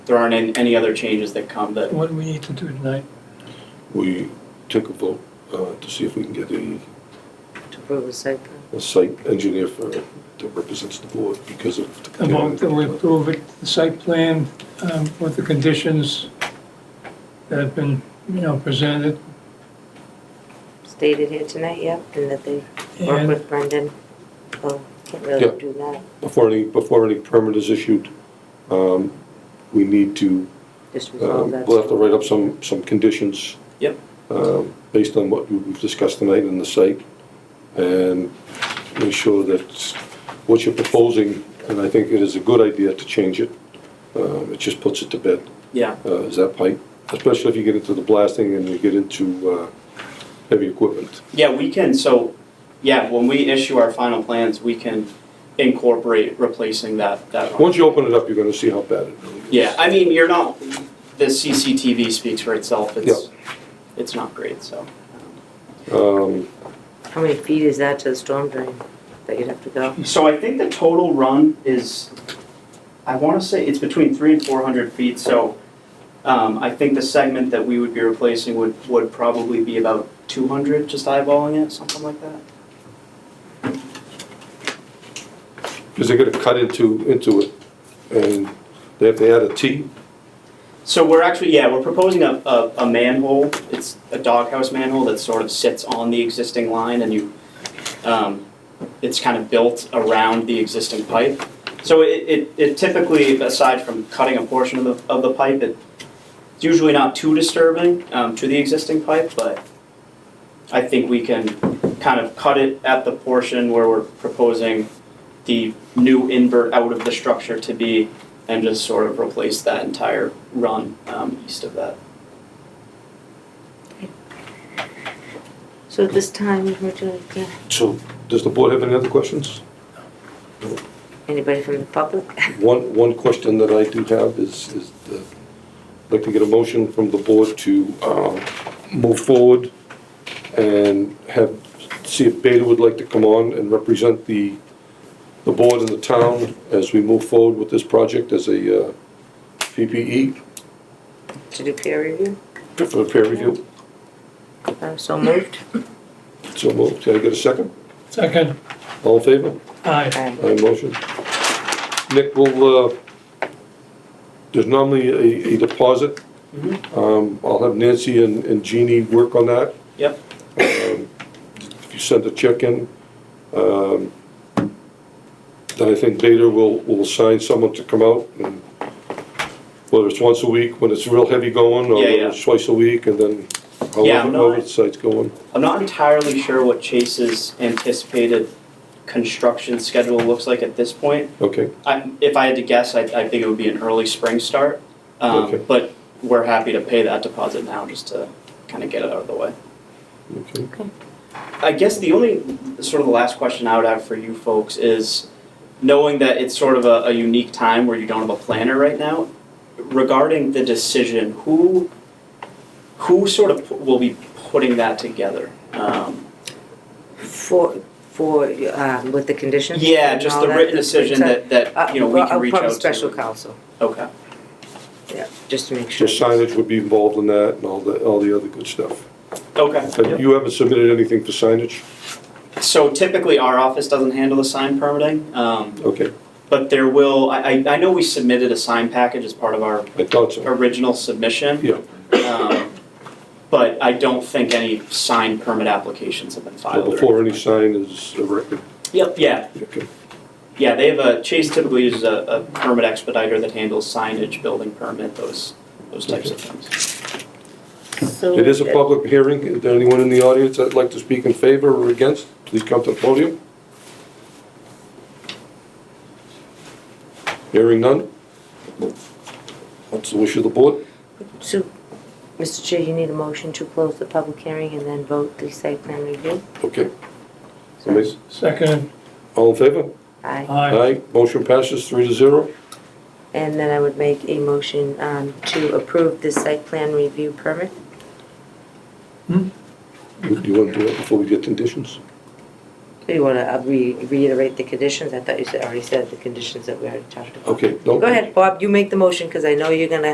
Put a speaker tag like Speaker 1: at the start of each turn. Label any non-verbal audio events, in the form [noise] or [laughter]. Speaker 1: there aren't an- any other changes that come that,
Speaker 2: What do we need to do tonight?
Speaker 3: We took a vote uh, to see if we can get a,
Speaker 4: to approve the site plan.
Speaker 3: a site engineer for, that represents the board because of. the-
Speaker 2: A vote that we approve it, the site plan um, with the conditions that have been, you know, presented.
Speaker 4: Stated here tonight, yep, and that they work
Speaker 2: And
Speaker 4: with Brendan. Oh, can't
Speaker 3: Yeah.
Speaker 4: really do that,
Speaker 3: Before any, before any permit is issued, um, we need to,
Speaker 4: just resolve
Speaker 3: um,
Speaker 4: that.
Speaker 3: we'll have to write up some, some conditions.
Speaker 1: Yep.
Speaker 3: um, Based on what we've discussed tonight in the site and make sure that what you're proposing, and I think it is a good idea to change it. Um, It just puts it to bed.
Speaker 1: yeah,
Speaker 3: uh, is that pipe, especially if you get into the blasting and you get into uh, heavy equipment.
Speaker 1: Yeah, we can, so, yeah, when we issue our final plans, we can incorporate replacing that, that.
Speaker 3: Once you open it up, you're gonna see how bad it really is.
Speaker 1: Yeah, I mean, you're not, the CCTV speaks for itself, it's, it's not great, so.
Speaker 3: Um,
Speaker 4: How many feet is that to the storm drain that you'd have to go?
Speaker 1: So I think the total run is, I wanna say it's between three and four hundred feet, so, um, I think the segment that we would be replacing would, would probably be about two hundred, just eyeballing it, something like that.
Speaker 3: Because they're gonna cut into, into it, and they have to add a T.
Speaker 1: So we're actually, yeah, we're proposing a, a, a manhole, it's a doghouse manhole that sort of sits on the existing line and you, um, it's kind of built around the existing pipe. So it, it, it typically, aside from cutting a portion of the, of the pipe, it, it's usually not too disturbing, um, to the existing pipe, but I think we can kind of cut it at the portion where we're proposing the new invert out of the structure to be and just sort of replace that entire run um, east of that.
Speaker 4: So at this time, we're doing, yeah.
Speaker 3: So, does the board have any other questions?
Speaker 4: anybody from the public? [laughs]
Speaker 3: One, one question that I do have is, is the, I'd like to get a motion from the board to, um, move forward and have, see if Beta would like to come on and represent the, the board and the town as we move forward with this project as a, uh, PPE
Speaker 4: To do peer review?
Speaker 3: for peer review.
Speaker 4: Uh, So moved?
Speaker 3: So moved. Can I get a second?
Speaker 2: second,
Speaker 3: All in favor?
Speaker 2: aye.
Speaker 4: Aye.
Speaker 3: Aye, motion. Nick, will, uh, there's normally a, a deposit.
Speaker 1: Mm-hmm.
Speaker 3: Um, I'll have Nancy and, and Jeannie work on that.
Speaker 1: Yep.
Speaker 3: Um, If you send a check in, um, then I think Beta will, will assign someone to come out and whether it's once a week, when it's real heavy going, or
Speaker 1: Yeah, yeah.
Speaker 3: whether it's twice a week, and then
Speaker 1: Yeah,
Speaker 3: however,
Speaker 1: no, I-
Speaker 3: however the site's going.
Speaker 1: I'm not entirely sure what Chase's anticipated construction schedule looks like at this point.
Speaker 3: Okay,
Speaker 1: I, if I had to guess, I, I think it would be an early spring start. Um,
Speaker 3: Okay.
Speaker 1: But we're happy to pay that deposit now just to kind of get it out of the way.
Speaker 3: okay.
Speaker 1: I guess the only sort of the last question I would have for you folks is knowing that it's sort of a, a unique time where you don't have a planner right now regarding the decision who who sort of pu- will be putting that together um,
Speaker 4: For, for, uh, with the conditions?
Speaker 1: yeah
Speaker 4: and
Speaker 1: just
Speaker 4: all
Speaker 1: the
Speaker 4: that?
Speaker 1: written decision that,
Speaker 4: Uh,
Speaker 1: that you know we
Speaker 4: well,
Speaker 1: can reach
Speaker 4: Probably
Speaker 1: out
Speaker 4: special
Speaker 1: to
Speaker 4: counsel,
Speaker 1: okay
Speaker 4: yeah, just to make
Speaker 3: So
Speaker 4: sure.
Speaker 3: signage would be involved in that and all the, all the other good stuff.
Speaker 1: okay
Speaker 3: But you haven't submitted anything for signage?
Speaker 1: so typically our office doesn't handle the sign permitting um,
Speaker 3: Okay,
Speaker 1: but there will I, I I know we submitted a sign package as part of our
Speaker 3: I thought so.
Speaker 1: original submission
Speaker 3: Yeah,
Speaker 1: Um, But I don't think any signed permit applications have been
Speaker 3: well,
Speaker 1: filed. or-
Speaker 3: before any sign is erected.
Speaker 1: Yep, yeah,
Speaker 3: Okay.
Speaker 1: yeah, they have a, Chase typically uses a, a permit expediter that handles signage, building permit, those, those types of things.
Speaker 4: So
Speaker 3: It is a public hearing. Is there anyone in the audience that'd like to speak in favor or against? Please come to the podium. Hearing none? What's the wish of the board?
Speaker 4: So, Mr. Chair, you need a motion to close the public hearing and then vote the site plan review?
Speaker 3: Okay. Amazing.
Speaker 2: Second,
Speaker 3: All in favor?
Speaker 4: Aye.
Speaker 2: aye.
Speaker 3: Motion passes three to zero.
Speaker 4: And then I would make a motion um, to approve this site plan review permit.
Speaker 3: Do you want to do it before we get conditions?
Speaker 4: It- You want to reiterate the conditions? I thought you said, already said the conditions that we already talked about.
Speaker 3: Okay, no.
Speaker 4: Go ahead, Bob, you make the motion, because I know you're going to